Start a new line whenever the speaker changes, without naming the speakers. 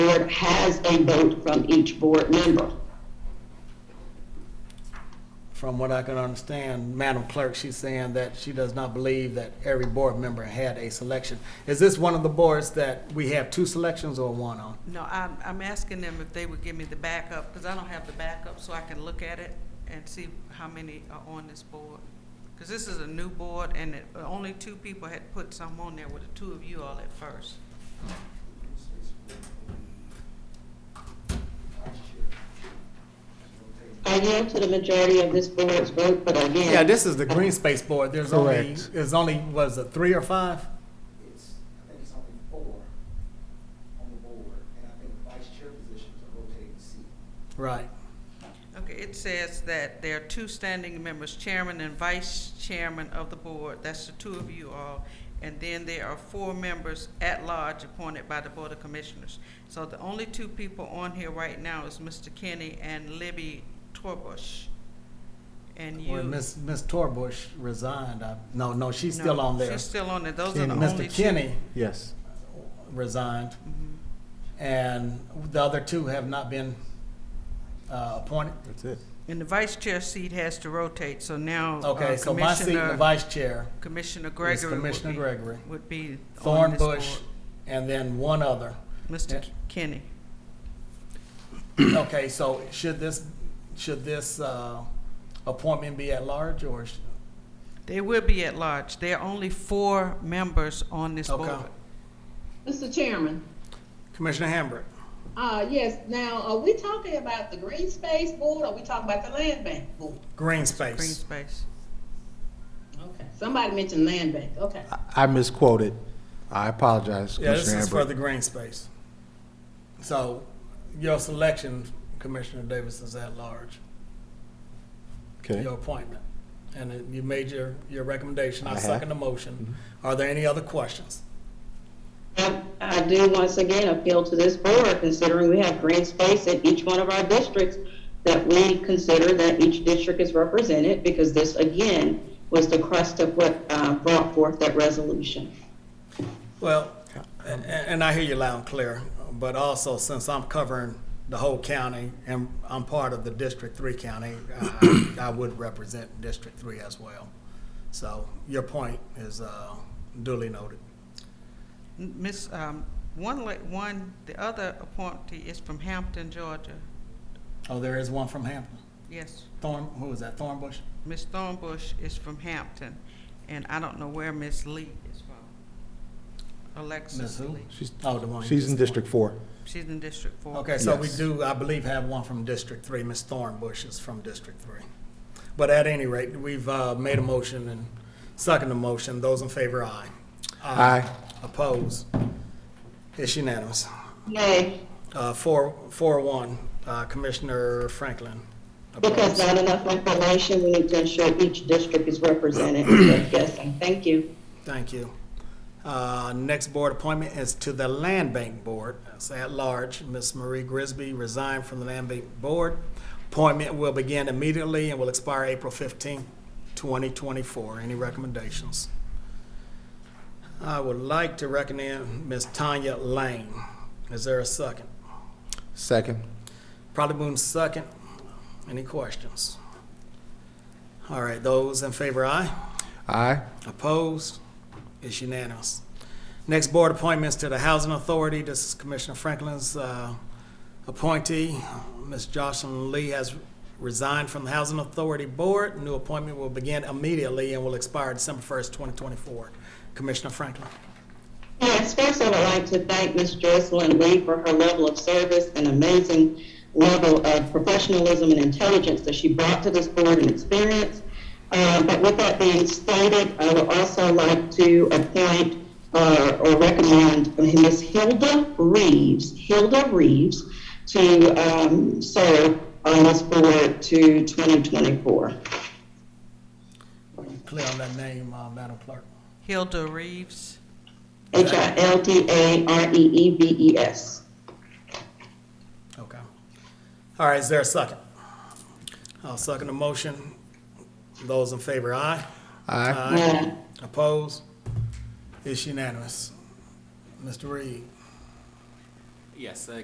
board has a vote from each board member.
From what I can understand, Madam Clerk, she's saying that she does not believe that every board member had a selection. Is this one of the boards that we have two selections or one on?
No, I'm, I'm asking them if they would give me the backup, because I don't have the backup, so I can look at it and see how many are on this board. Because this is a new board, and it- only two people had put some on there, with the two of you all at first.
I yield to the majority of this board's vote, but again.
Yeah, this is the Green Space Board. There's only,
Correct.
there's only, was it three or five?
it's, I think it's only four on the board, and I think vice chair positions are rotating seat.
Right.
Okay, it says that there are two standing members, chairman and vice chairman of the board, that's the two of you all. And then there are four members at large appointed by the Board of Commissioners. So the only two people on here right now is Mr. Kenny and Libby Torbush. And you.
Well, Miss Miss Torbush resigned. I- No, no, she's still
No,
on there.
She's still on there, those are the
Kenny.
only
Mr.
two.
Kenny
Yes.
resigned,
Mhm.
and the other two have not been uh, appointed.
That's it.
And the vice chair seat has to rotate, so now. uh,
Okay, so my seat, the
Commissioner-
vice chair,
Commissioner
is
Gregory. would
Commissioner
be-
Gregory,
Would be on
Thorn
this
Bush,
board.
and then one other.
Mr.
Yeah.
Kenny.
Okay, so should this, should this uh, appointment be at large, or, sh-
They will be at large. There are only four members on this
Okay.
board.
Mr. Chairman,
Commissioner Hambrick?
uh, yes, now, are we talking about the green space board, or are we talking about the land bank board?
Green
Green
space.
space.
Okay, somebody mentioned land bank, okay.
I- I misquoted. I apologize,
Yeah, this
Commissioner
is for the
Amber.
green space. So your selection, Commissioner Davis, is at large,
Okay.
your appointment. And it- you made your, your recommendation.
I
I
have. Mm-hmm.
second the motion. Are there any other questions?
I I do once again appeal to this board, considering we have green space in each one of our districts, that we consider that each district is represented, because this, again, was the crust of what uh, brought forth that resolution.
Well, and, and I hear you loud and clear, but also since I'm covering the whole county and I'm part of the District Three county, I, I would represent District Three as well. So your point is uh, duly noted.
N- Miss, um, one, la- one, the other appointee is from Hampton, Georgia.
Oh, there is one from Hampton.
Yes,
Thorn, who was that, Thornbush?
Miss Thornbush is from Hampton, and I don't know where Miss Lee is from.
Miss
Alexis
who?
Lee.
She's-
Oh, the one. you
She's in
just-
District Four.
She's in District Four.
Okay, so we
Yes.
do, I believe, have one from District Three. Ms. Thornbush is from District Three. But at any rate, we've uh, made a motion and seconded a motion. Those in favor, aye.
Aye.
Oppose? It's unanimous.
Nay,
Uh, Four, four, one. Uh, Commissioner Franklin.
because
opposed.
not enough information, we need to ensure each district is represented. So, Yes, I thank you.
Thank you. Uh, Next board appointment is to the Land Bank Board. It's at large. Ms. Marie Grisby resigned from the Land Bank Board. Appointment will begin immediately and will expire April 15, 2024. Any recommendations? I would like to recommend Ms. Tanya Lane. Is there a second?
Second.
Probably moved second. Any questions? All right, those in favor, aye.
Aye.
Opposed? It's unanimous. Next board appointments to the Housing Authority. This is Commissioner Franklin's uh, appointee. Ms. Jocelyn Lee has resigned from the Housing Authority Board. New appointment will begin immediately and will expire December 1st, 2024. Commissioner Franklin.
Yes, first I would like to thank Ms. Jocelyn Lee for her level of service and amazing level of professionalism and intelligence that she brought to this board and experience. Uh, But with that being stated, I would also like to appoint uh, or recommend Ms. Hilda Reeves, Hilda Reeves, to um, serve on this board to 2024.
Are you clear on that name, uh, Madam Clerk?
Hilda Reeves.
E H-I-L-D-A-R-E-E-V-E-S.
Okay. All right, is there a second? I'll second the motion. Those in favor, aye.
Aye.
Aye.
Opposed? It's unanimous. Mr. Reed.
Yes, uh,